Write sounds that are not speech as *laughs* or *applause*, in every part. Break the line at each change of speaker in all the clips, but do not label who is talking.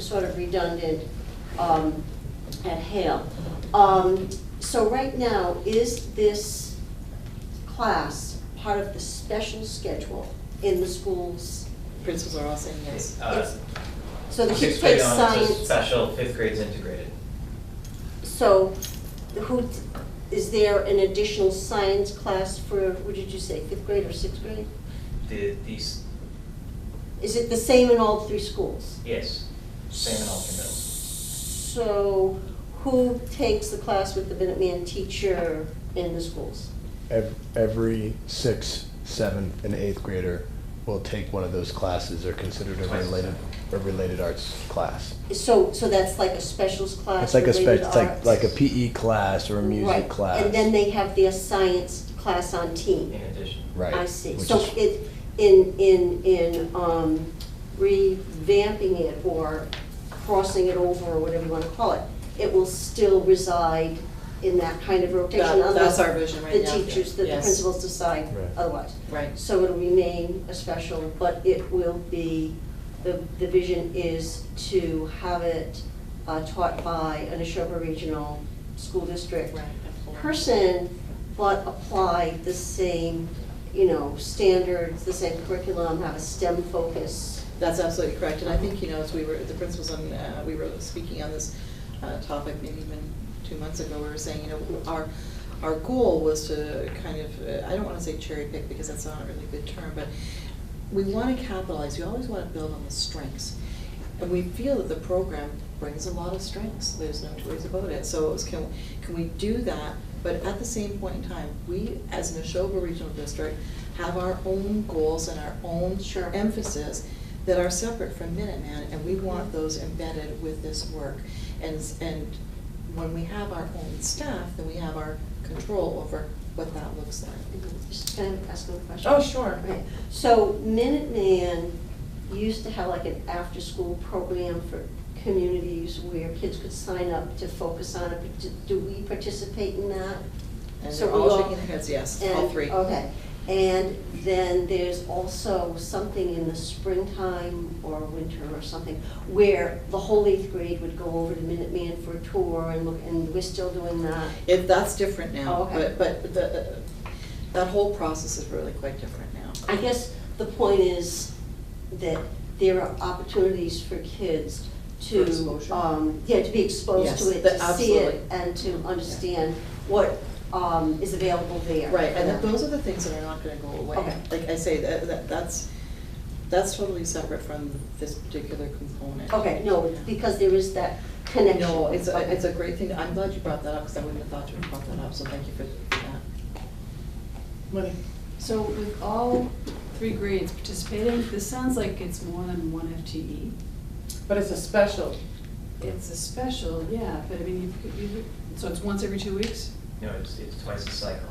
sort of redundant um, at Hale. Um, So right now, is this class part of the special schedule in the schools?
Principals are all saying yes.
It's-
Uh,
So the kids
Sixth
take
grade on is a
science,
special, fifth grade's integrated.
so who, is there an additional science class for, what did you say, fifth grade or sixth grade?
The, these,
Is it the same in all three schools?
yes, same in all three middles.
So who takes the class with the Minuteman teacher in the schools?
Ev- Every sixth, seventh, and eighth grader will take one of those classes. They're considered a
Twice.
related, a related arts class.
So, so that's like a specials class
It's like a
related
spec, it's like,
arts?
like a PE class or a music
Right.
class.
And then they have their science class on
In
team.
addition,
Right.
I see.
which
So
is-
it, in, in, in um, revamping it or crossing it over or whatever you want to call it, it will still reside in that kind of rotation
That-
unless
that's our vision right now.
The teachers, the the
Yes.
principals decide
Right.
otherwise.
Right.
So it'll remain a special, but it will be, the, the vision is to have it uh, taught by an Neshoba Regional School District person, but apply the same, you know, standards, the same curriculum, have a STEM focus.
That's absolutely correct, and I think, you know, as we were, the principals on, uh, we were speaking on this uh, topic maybe even two months ago, we were saying, you know, our, our goal was to kind of, uh, I don't want to say cherry pick because that's not a really good term, but we want to capitalize, we always want to build on the strengths. And we feel that the program brings a lot of strengths, there's no two ways about it. So it was, can, can we do that? But at the same point in time, we, as an Neshoba Regional District, have our own goals and our own
Sure.
emphasis that are separate from Minuteman, and we want those embedded with this work. And, s- and when we have our own staff, then we have our control over what that looks like.
Just kind of ask them a question.
Oh, sure.
Right. So Minuteman used to have like an after-school program for communities where kids could sign up to focus on it. Do we participate in that?
And
So
they're
we
all
all-
shaking their heads, yes, all
And-
three.
Okay, and then there's also something in the springtime or winter or something where the whole eighth grade would go over to Minuteman for a tour and look, and we're still doing that.
If, that's different
Oh,
now,
okay.
but, but the, that whole process is really quite different now.
I guess the point is that there are opportunities for kids
For
to,
exposure.
um, yeah, to be exposed to
Yes,
it,
that-
to see it,
absolutely.
and to understand what, um, is available there.
Right, and that those are the things that are not gonna go away.
Okay.
Like I say, that, that, that's, that's totally separate from this particular component.
Okay, no, because there is that connection.
No, it's, a
Okay.
it's a great thing, I'm glad you brought that up, because I wouldn't have thought you would have brought that up, so thank you for that.
Money.
So with all three grades participating, this sounds like it's more than one FTE.
But it's a special.
It's a special, yeah, but I mean, you, you, so it's once every two weeks?
no, it's, it's twice the cycle.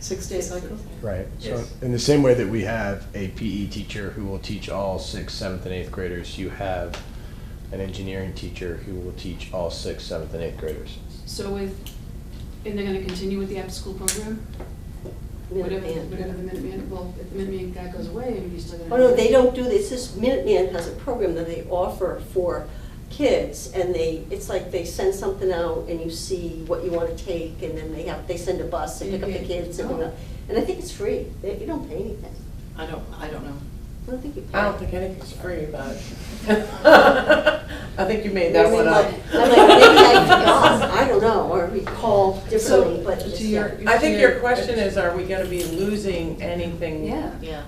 Six-day cycle?
Right. So
Yes.
in the same way that we have a PE teacher who will teach all sixth, seventh, and eighth graders, you have an engineering teacher who will teach all sixth, seventh, and eighth graders.
So with, and they're gonna continue with the after-school program? Whatever,
Minuteman.
whatever the Minuteman, well, if the Minuteman guy goes away, I mean, he's still gonna.
Oh, no, they don't do this, this Minuteman has a program that they offer for kids, and they, it's like they send something out, and you see what you wanna take, and then they have, they send a bus and pick up the
Okay.
kids, and,
Oh.
and I think it's free, They- you don't pay anything,
I don't, I don't know.
I don't think you pay.
I don't think anything's free about it. *laughs* I think you made that one uh, up.
I'm like, maybe I forgot, *laughs* I don't know, or recall differently, but
So,
it's, uh,
to your-
yeah.
I think your question is, are we gonna be losing anything?
Yeah.
Yeah,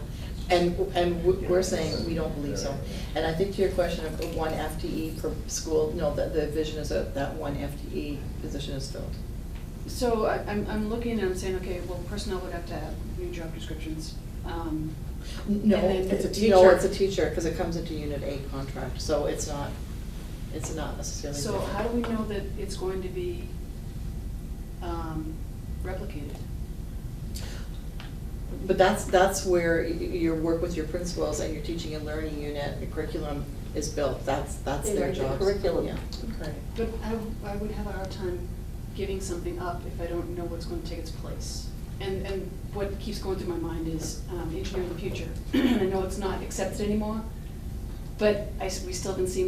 and, and we- we're saying we don't believe so. And I think to your question of one FTE per school, no, the, the vision is that that one FTE position is filled.
So I, I'm, I'm looking and I'm saying, okay, well, personnel would have to have new job descriptions. Um,
No,
And then-
it's a teacher. No, it's a teacher, because it comes into Unit A contract, so it's not, it's not necessarily.
So
different.
how do we know that it's going to be, um, replicated?
But that's, that's where y- y- your work with your principals and your teaching and learning unit, your curriculum is built, that's, that's
They
their
write the
job.
curriculum.
Right.
But I, w- I would have a hard time giving something up if I don't know what's going to take its place. And, and what keeps going through my mind is *clears throat* um, engineering the future. I know it's not accepted anymore, but I s we still haven't seen